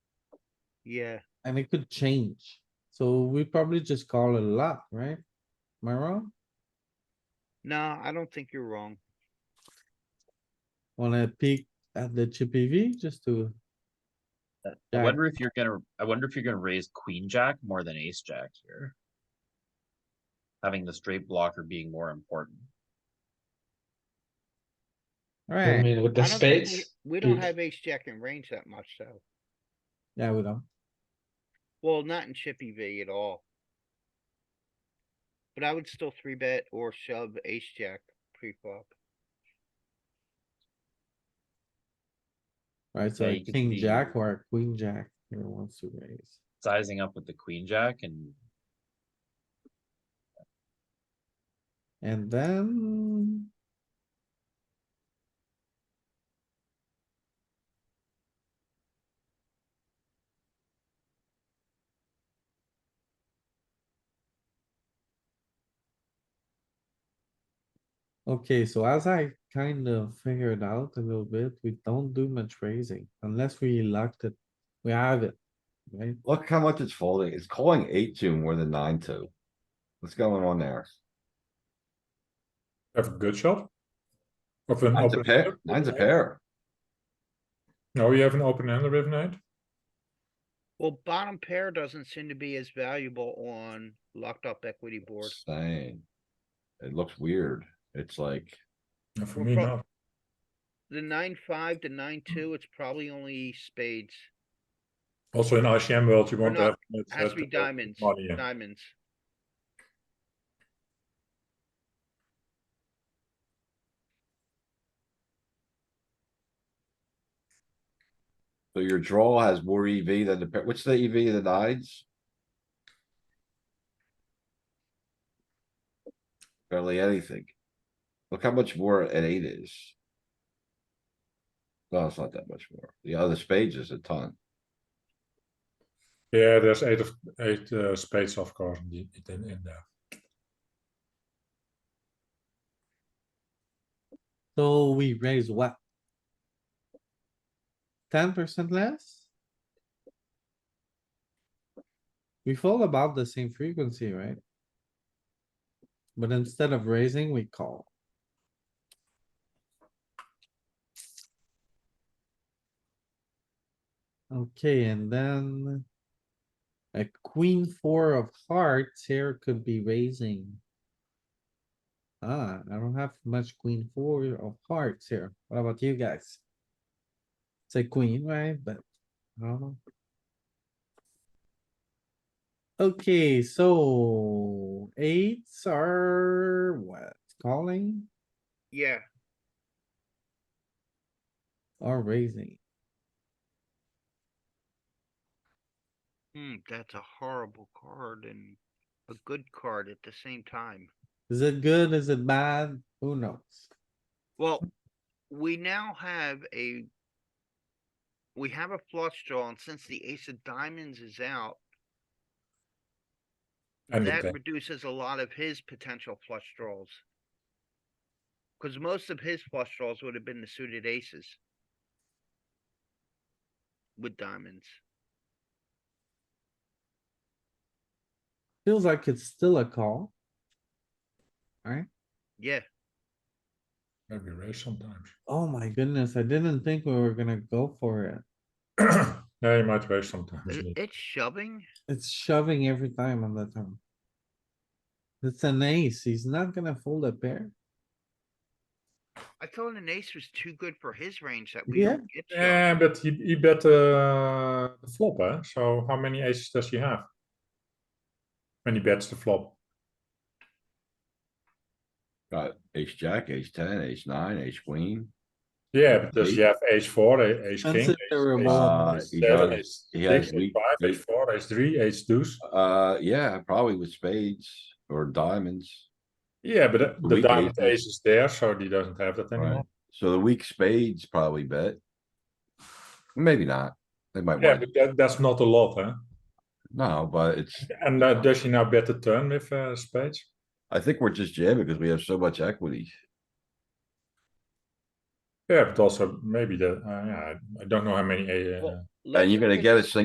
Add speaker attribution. Speaker 1: Yeah,
Speaker 2: and it could change. So we probably just call a lot, right? Am I wrong?
Speaker 1: no, I don't think you're wrong.
Speaker 2: Wanna peek at the chippy V just to,
Speaker 3: I Uh,
Speaker 2: Yeah.
Speaker 3: wonder if you're gonna, I wonder if you're gonna raise queen jack more than ace jack here. Having the straight blocker being more important.
Speaker 4: I
Speaker 2: alright,
Speaker 4: mean, with
Speaker 1: I
Speaker 4: the
Speaker 1: don't think
Speaker 4: spades,
Speaker 1: We we don't
Speaker 4: Mm.
Speaker 1: have ace jack in range that much, though.
Speaker 2: yeah, we don't.
Speaker 1: Well, not in chippy V at all. But I would still three bet or shove ace jack pre-flop.
Speaker 2: Right, so
Speaker 3: Yeah,
Speaker 2: a
Speaker 3: you can
Speaker 2: king
Speaker 3: see-
Speaker 2: jack or a queen jack here wants to raise.
Speaker 3: Sizing up with the queen jack and
Speaker 2: And then. Okay, so as I kind of figured out a little bit, we don't do much raising unless we locked it. We have it, right?
Speaker 5: Look how much it's folding. It's calling eight two more than nine two. What's going on there?
Speaker 6: have a good shot. Of an
Speaker 5: Nine's a
Speaker 6: open.
Speaker 5: pair, nine's a pair.
Speaker 6: No, you have an open hand with eight.
Speaker 1: Well, bottom pair doesn't seem to be as valuable on locked up equity board.
Speaker 5: Same. It looks weird. It's like,
Speaker 6: And For
Speaker 1: Well,
Speaker 6: me,
Speaker 1: prob-
Speaker 6: not.
Speaker 1: The nine five, the nine two, it's probably only spades.
Speaker 6: Also in ICM world, you want to
Speaker 1: not-
Speaker 6: have. it
Speaker 1: Has
Speaker 6: at
Speaker 1: to be
Speaker 6: the
Speaker 1: diamonds,
Speaker 6: Money, in.
Speaker 1: diamonds.
Speaker 5: so your draw has more EV than the pair. What's the EV of the nines? Barely anything. Look how much more an eight is. No, it's not that much more. The other spades is a ton.
Speaker 6: Yeah, there's eight of, eight uh, spades, of course, in, the- in, in there.
Speaker 2: So we raise what? Ten percent less? We fall about the same frequency, right? But instead of raising, we call. Okay, and then. A queen four of hearts here could be raising. Ah, I don't have much queen four of hearts here. What about you guys? It's a queen, right? But, I don't know. Okay, so eights are what? Calling
Speaker 1: Yeah,
Speaker 2: or raising?
Speaker 1: hmm, that's a horrible card and a good card at the same time.
Speaker 2: Is it good? Is it bad? Who knows?
Speaker 1: Well, we now have a. We have a flush draw and since the ace of diamonds is out,
Speaker 6: And the
Speaker 1: that
Speaker 6: ten.
Speaker 1: reduces a lot of his potential flush draws. Cause most of his flush draws would have been the suited aces. With diamonds.
Speaker 2: Feels like it's still a call.
Speaker 1: Yeah,
Speaker 6: Maybe raise sometimes.
Speaker 2: Oh my goodness, I didn't think we were gonna go for it.
Speaker 6: yeah, you might raise
Speaker 1: i-
Speaker 6: sometimes.
Speaker 1: it's shoving.
Speaker 2: It's shoving every time on the turn. It's an ace. He's not gonna fold a pair.
Speaker 1: I thought an ace was too good for his range that we
Speaker 2: Yeah.
Speaker 1: don't get. shoved.
Speaker 6: Yeah, but he, he bet uh, the flop, eh? So how many aces does he have? When he bets the flop.
Speaker 5: Got ace jack, ace ten, ace nine, ace queen.
Speaker 6: Yeah, but does he have ace four, a- ace king?
Speaker 2: Consider a
Speaker 6: ace- ace-
Speaker 2: Uh,
Speaker 6: ace
Speaker 5: he
Speaker 6: seven,
Speaker 5: does.
Speaker 6: ace
Speaker 5: He
Speaker 6: six,
Speaker 5: has
Speaker 6: ace
Speaker 5: weak-
Speaker 6: five, ace
Speaker 5: weak-
Speaker 6: four, ace three, ace deuce.
Speaker 5: Uh, yeah, probably with spades or diamonds,
Speaker 6: Yeah, but the- the
Speaker 5: Weak
Speaker 6: diamond
Speaker 5: aces.
Speaker 6: ace is there, so he doesn't have that anymore.
Speaker 5: right? So the weak spades probably bet. Maybe not. They might
Speaker 6: Yeah,
Speaker 5: want,
Speaker 6: but that, that's not a lot, huh?
Speaker 5: no, but it's,
Speaker 6: And uh, does he now bet the turn with uh, spades?
Speaker 5: I think we're just jamming because we have so much equity.
Speaker 6: Yeah, but also maybe the, uh, yeah, I- I don't know how many, uh,
Speaker 1: Well, let's
Speaker 5: And you're
Speaker 1: look
Speaker 5: gonna
Speaker 1: at-
Speaker 5: get a single